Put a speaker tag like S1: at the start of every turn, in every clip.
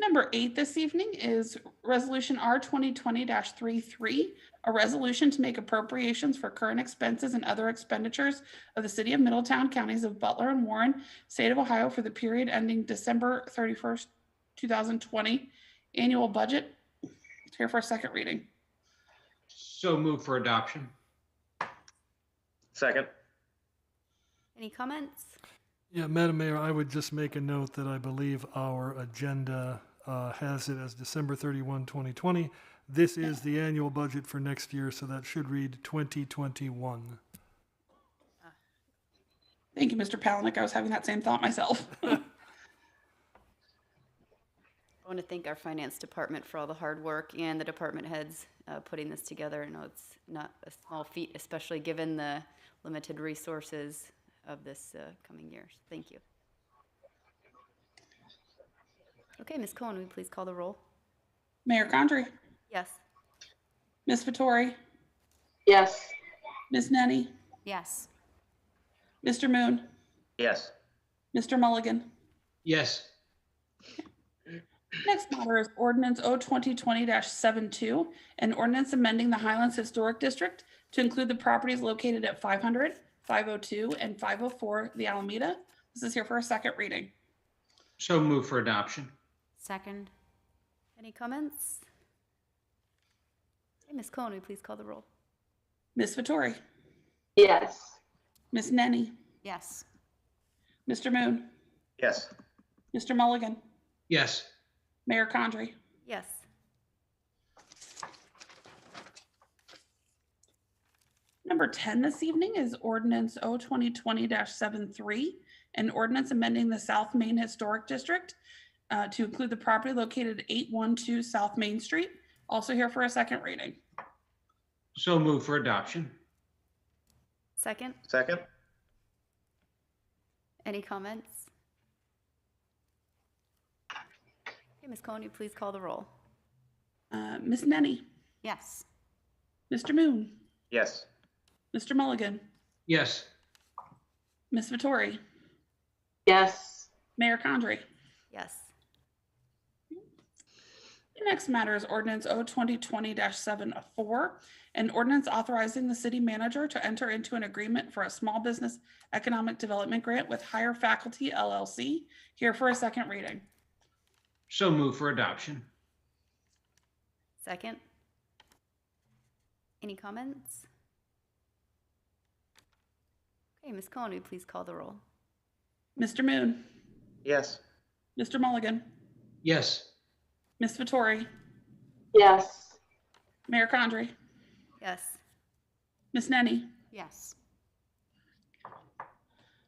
S1: number eight this evening is Resolution R twenty twenty 33 a resolution to make appropriations for current expenses and other expenditures of the city of Middletown, counties of Butler and Warren, state of Ohio for the period ending December thirty-first, two thousand twenty, annual budget. It's here for a second reading.
S2: So move for adoption.
S3: Second.
S4: Any comments?
S5: Yeah, Madam Mayor, I would just make a note that I believe our agenda uh, has it as December 31, 2020. This is the annual budget for next year, so that should read 2021.
S1: Thank you, Mr. Palanick. I was having that same thought myself.
S4: I want to thank our finance department for all the hard work and the department heads uh, putting this together. I know it's not a small feat, especially given the limited resources of this uh, coming year. Thank you. Okay, Ms. Cohen, will you please call the roll?
S1: Mayor Condrey,
S4: Yes.
S1: Ms. Vettori,
S6: yes,
S1: Ms. Nenny,
S4: Yes.
S1: Mr. Moon,
S3: Yes.
S1: Mr. Mulligan.
S2: Yes,
S1: Next matter is ordinance O twenty twenty 72 an ordinance amending the Highlands Historic District to include the properties located at 500, 502, and five oh four The Alameda. This is here for a second reading.
S2: so move for adoption.
S4: Second. Any comments? Okay, Ms. Cohen, will you please call the roll?
S1: Ms. Vettori,
S6: yes,
S1: Ms. Nenny,
S4: Yes.
S1: Mr. Moon,
S3: Yes.
S1: Mr. Mulligan,
S2: Yes,
S1: Mayor Condrey.
S4: Yes.
S1: Number 10 this evening is ordinance O 2020-73, an ordinance amending the South Main Historic District uh, to include the property located at 812 South Main Street. Also here for a second reading.
S2: so move for adoption.
S4: Second.
S3: Second.
S4: Any comments? Okay, Ms. Cohen, will you please call the roll?
S1: Uh, Ms. Nenny,
S4: Yes.
S1: Mr. Moon,
S3: Yes.
S1: Mr. Mulligan,
S2: Yes,
S1: Ms. Vittori,
S6: yes,
S1: Mayor Condrey.
S4: Yes.
S1: The next matter is ordinance O 2020-74, an ordinance authorizing the city manager to enter into an agreement for a small business economic development grant with Higher Faculty LLC. Here for a second reading.
S2: so move for adoption.
S4: Second. Any comments? Okay, Ms. Cohen, will you please call the roll?
S1: Mr. Moon,
S3: Yes.
S1: Mr. Mulligan,
S2: Yes,
S1: Ms. Vittori,
S6: yes,
S1: Mayor Condrey,
S4: Yes.
S1: Ms. Nenny.
S4: Yes.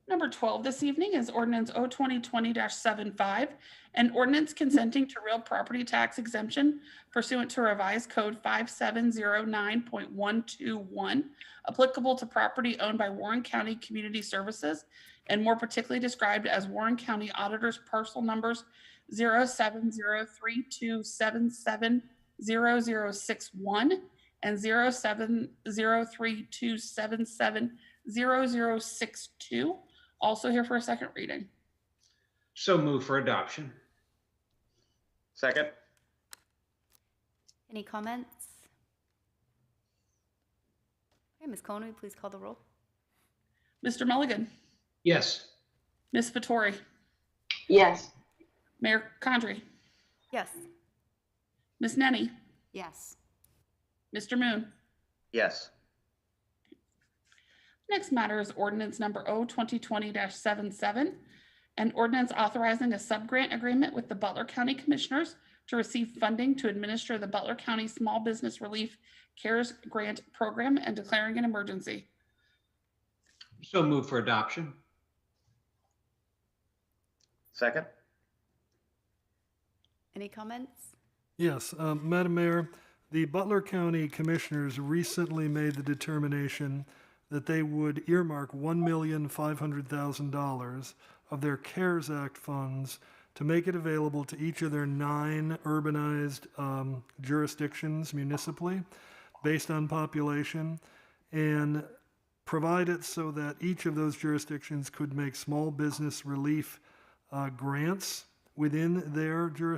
S1: Number 12 this evening is ordinance O 2020-75, an ordinance consenting to real property tax exemption pursuant to revised code 5709.121, applicable to property owned by Warren County Community Services, and more particularly described as Warren County Auditor's parcel numbers 07032770061 and 07032770062 also here for a second reading.
S2: so move for adoption.
S3: Second.
S4: Any comments? Okay, Ms. Cohen, will you please call the roll?
S1: Mr. Mulligan,
S2: Yes,
S1: Ms. Vittori,
S6: yes,
S1: Mayor Condrey,
S4: Yes.
S1: Ms. Nenny,
S4: Yes.
S1: Mr. Moon.
S3: Yes.
S1: Next matter is ordinance number O 2020-77, an ordinance authorizing a subgrant agreement with the Butler County Commissioners to receive funding to administer the Butler County Small Business Relief CARES Grant Program and declaring an emergency.
S2: so move for adoption.
S3: Second.
S4: Any comments?
S5: Yes, um, Madam Mayor, the Butler County Commissioners recently made the determination that they would earmark $1,500,000 of their CARES Act funds to make it available to each of their nine urbanized um, jurisdictions municipally based on population and provide it so that each of those jurisdictions could make small business relief uh, grants within their jurisdiction.